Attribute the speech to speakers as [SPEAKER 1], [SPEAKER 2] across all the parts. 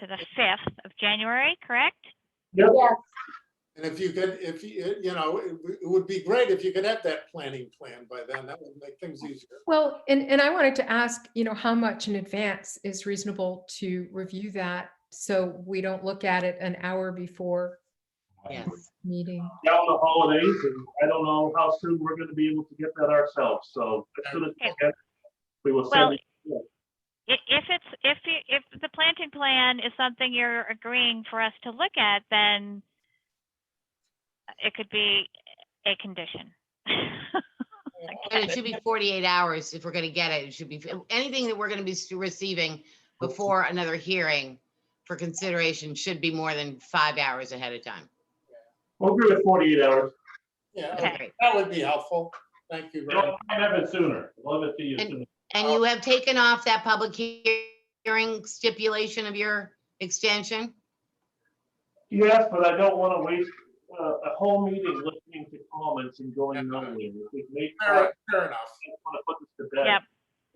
[SPEAKER 1] to the 5th of January, correct?
[SPEAKER 2] Yes,
[SPEAKER 3] And if you could, if, you you know, it w- it would be great if you could have that planning plan by then. That would make things easier.
[SPEAKER 4] Well, and, and I wanted to ask, you know, how much in advance is reasonable to review that? So we don't look at it an hour before
[SPEAKER 5] Yes.
[SPEAKER 4] meeting.
[SPEAKER 6] down the holidays, and I don't know how soon we're gonna be able to get that ourselves, so as soon as we get, we will
[SPEAKER 1] Well,
[SPEAKER 6] send it.
[SPEAKER 1] I- If it's, if, you- if the planting plan is something you're agreeing for us to look at, then it could be a condition.
[SPEAKER 5] And it should be 48 hours if we're going to get it. It should be, anything that we're going to be s- receiving before another hearing for consideration should be more than five hours ahead of time.
[SPEAKER 6] We'll agree with forty-eight hours,
[SPEAKER 3] Yeah,
[SPEAKER 5] Okay.
[SPEAKER 3] that would be helpful. Thank you very
[SPEAKER 6] we'll
[SPEAKER 3] much.
[SPEAKER 6] have it sooner, we'll have it to you
[SPEAKER 5] And-
[SPEAKER 6] sooner.
[SPEAKER 5] And you have taken off that public he- hearing stipulation of your extension?
[SPEAKER 6] Yes, but I don't wanna waste uh, a whole meeting listening to comments and going nowhere. If we make, I
[SPEAKER 3] Fair fair enough.
[SPEAKER 6] wanna put this to bed.
[SPEAKER 1] Yep,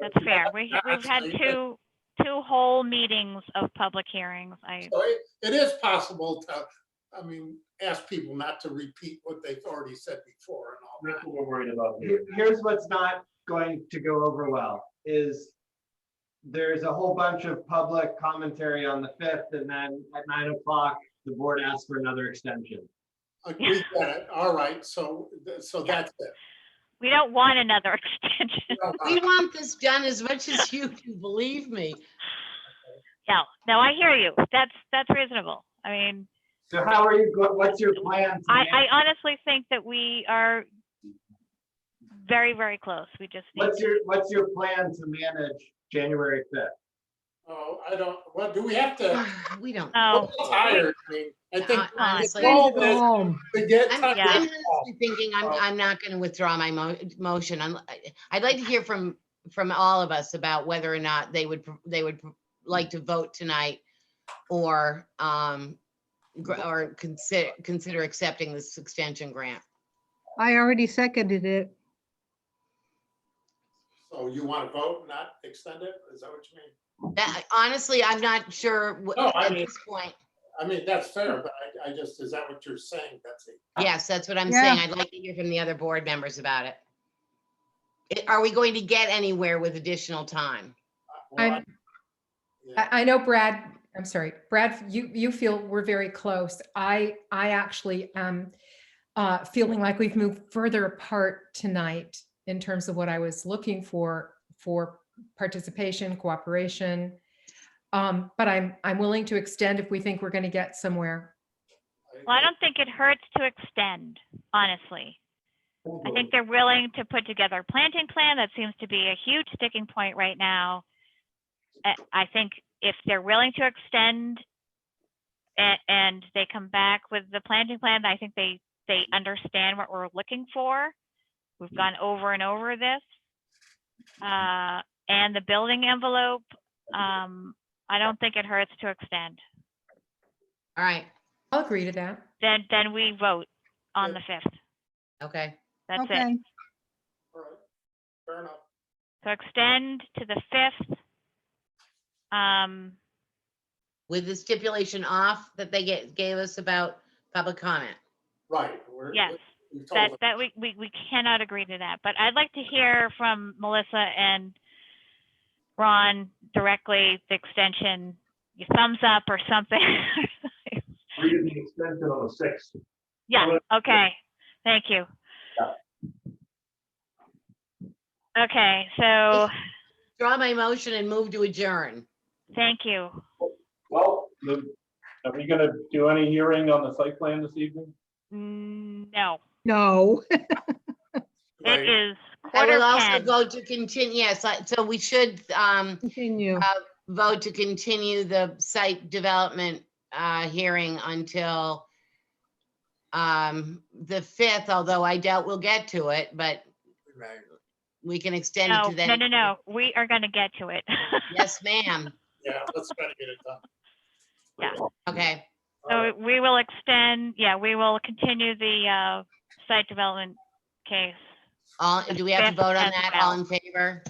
[SPEAKER 1] that's fair. We, we've had
[SPEAKER 3] Actually, it-
[SPEAKER 1] two, two whole meetings of public hearings. I,
[SPEAKER 3] So it- It is possible to, I mean, ask people not to repeat what they've already said before and all
[SPEAKER 6] That's
[SPEAKER 3] that.
[SPEAKER 6] what we're worried about here.
[SPEAKER 7] Here- here's what's not going to go over well is there's a whole bunch of public commentary on the fifth and then at nine o'clock, the board asks for another extension.
[SPEAKER 3] Uh, We get it. All right, so, th- so that's it.
[SPEAKER 1] we don't want another extension.
[SPEAKER 3] Uh,
[SPEAKER 5] We want this done as much as you do, believe me.
[SPEAKER 1] No, no, I hear you. That's, that's reasonable. I mean,
[SPEAKER 7] So how are you, go- what's your plan? to
[SPEAKER 1] I,
[SPEAKER 7] manage-
[SPEAKER 1] I honestly think that we are very, very close. We just need
[SPEAKER 7] What's your, what's your plan to manage January fifth?
[SPEAKER 3] Oh, I don't, well, do we have to?
[SPEAKER 5] We don't.
[SPEAKER 1] Oh,
[SPEAKER 3] I'm tired. I mean, I think
[SPEAKER 5] Hon- Uh, honestly.
[SPEAKER 3] the goal is
[SPEAKER 4] home.
[SPEAKER 3] to get
[SPEAKER 5] I'm,
[SPEAKER 3] time
[SPEAKER 1] Yeah.
[SPEAKER 5] I'm
[SPEAKER 3] to talk.
[SPEAKER 5] honestly thinking I'm, I'm not going to withdraw my mo- motion. I'm, I- I'd like to hear from, from all of us about whether or not they would, pr- they would pr- like to vote tonight or, um, gr- or consider, consider accepting this extension grant.
[SPEAKER 8] I already seconded it.
[SPEAKER 3] So you want to vote, not extend it? Is that what you mean?
[SPEAKER 5] That- Honestly, I'm not sure wh-
[SPEAKER 3] No, I
[SPEAKER 5] at
[SPEAKER 3] mean-
[SPEAKER 5] this point.
[SPEAKER 3] I mean, that's fair, but I, I just, is that what you're saying, Betsy?
[SPEAKER 5] Yes, that's what I'm saying.
[SPEAKER 8] Yeah.
[SPEAKER 5] I'd like to hear from the other board members about it. It- Are we going to get anywhere with additional time?
[SPEAKER 3] Uh, well,
[SPEAKER 4] I'm-
[SPEAKER 3] yeah.
[SPEAKER 4] I, I know Brad, I'm sorry, Brad, you, you feel we're very close. I, I actually am uh, feeling like we've moved further apart tonight in terms of what I was looking for, for participation, cooperation. Um, But I'm, I'm willing to extend if we think we're going to get somewhere.
[SPEAKER 1] Well, I don't think it hurts to extend, honestly. I think they're willing to put together a planting plan. That seems to be a huge sticking point right now. I- I think if they're willing to extend a- and they come back with the planting plan, I think they, they understand what we're looking for. We've gone over and over this. Uh, and the building envelope, um, I don't think it hurts to extend.
[SPEAKER 5] All right,
[SPEAKER 4] I'll agree to that.
[SPEAKER 1] Then, then we vote on the fifth.
[SPEAKER 5] okay.
[SPEAKER 1] That's it.
[SPEAKER 8] Okay,
[SPEAKER 3] All right. Fair enough.
[SPEAKER 1] So extend to the fifth. Um,
[SPEAKER 5] with the stipulation off that they get, gave us about public comment.
[SPEAKER 3] Right. we're-
[SPEAKER 1] yes,
[SPEAKER 3] we've told
[SPEAKER 1] that,
[SPEAKER 3] them.
[SPEAKER 1] that we, we, we cannot agree to that, but I'd like to hear from Melissa and Ron directly, the extension, your thumbs up or something.
[SPEAKER 6] Read the extension on the sixth.
[SPEAKER 1] Yeah, okay, thank you. Okay, so,
[SPEAKER 5] Draw my motion and move to adjourn.
[SPEAKER 1] thank you.
[SPEAKER 6] Well, the- are we gonna do any hearing on the site plan this evening?
[SPEAKER 1] Mm, No,
[SPEAKER 8] no.
[SPEAKER 3] Right.
[SPEAKER 1] it is
[SPEAKER 5] I
[SPEAKER 1] quarter
[SPEAKER 5] will also
[SPEAKER 1] past.
[SPEAKER 5] vote to continue, yes, I- so we should um,
[SPEAKER 8] Continue.
[SPEAKER 5] vote to continue the site development uh, hearing until um, the 5th, although I doubt we'll get to it, but
[SPEAKER 3] Right.
[SPEAKER 5] we can extend it
[SPEAKER 1] No,
[SPEAKER 5] to that.
[SPEAKER 1] no, no, no, we are gonna get to it.
[SPEAKER 5] Yes, ma'am.
[SPEAKER 3] Yeah, let's try to get it done.
[SPEAKER 5] Okay,
[SPEAKER 3] All
[SPEAKER 1] So
[SPEAKER 3] right.
[SPEAKER 1] we will extend, yeah, we will continue the uh, site development case.
[SPEAKER 5] all, do we have to
[SPEAKER 1] Fifth
[SPEAKER 5] vote on
[SPEAKER 1] as
[SPEAKER 5] that?
[SPEAKER 1] well.
[SPEAKER 5] All in favor?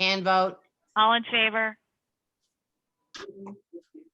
[SPEAKER 5] Hand vote?
[SPEAKER 1] All in favor?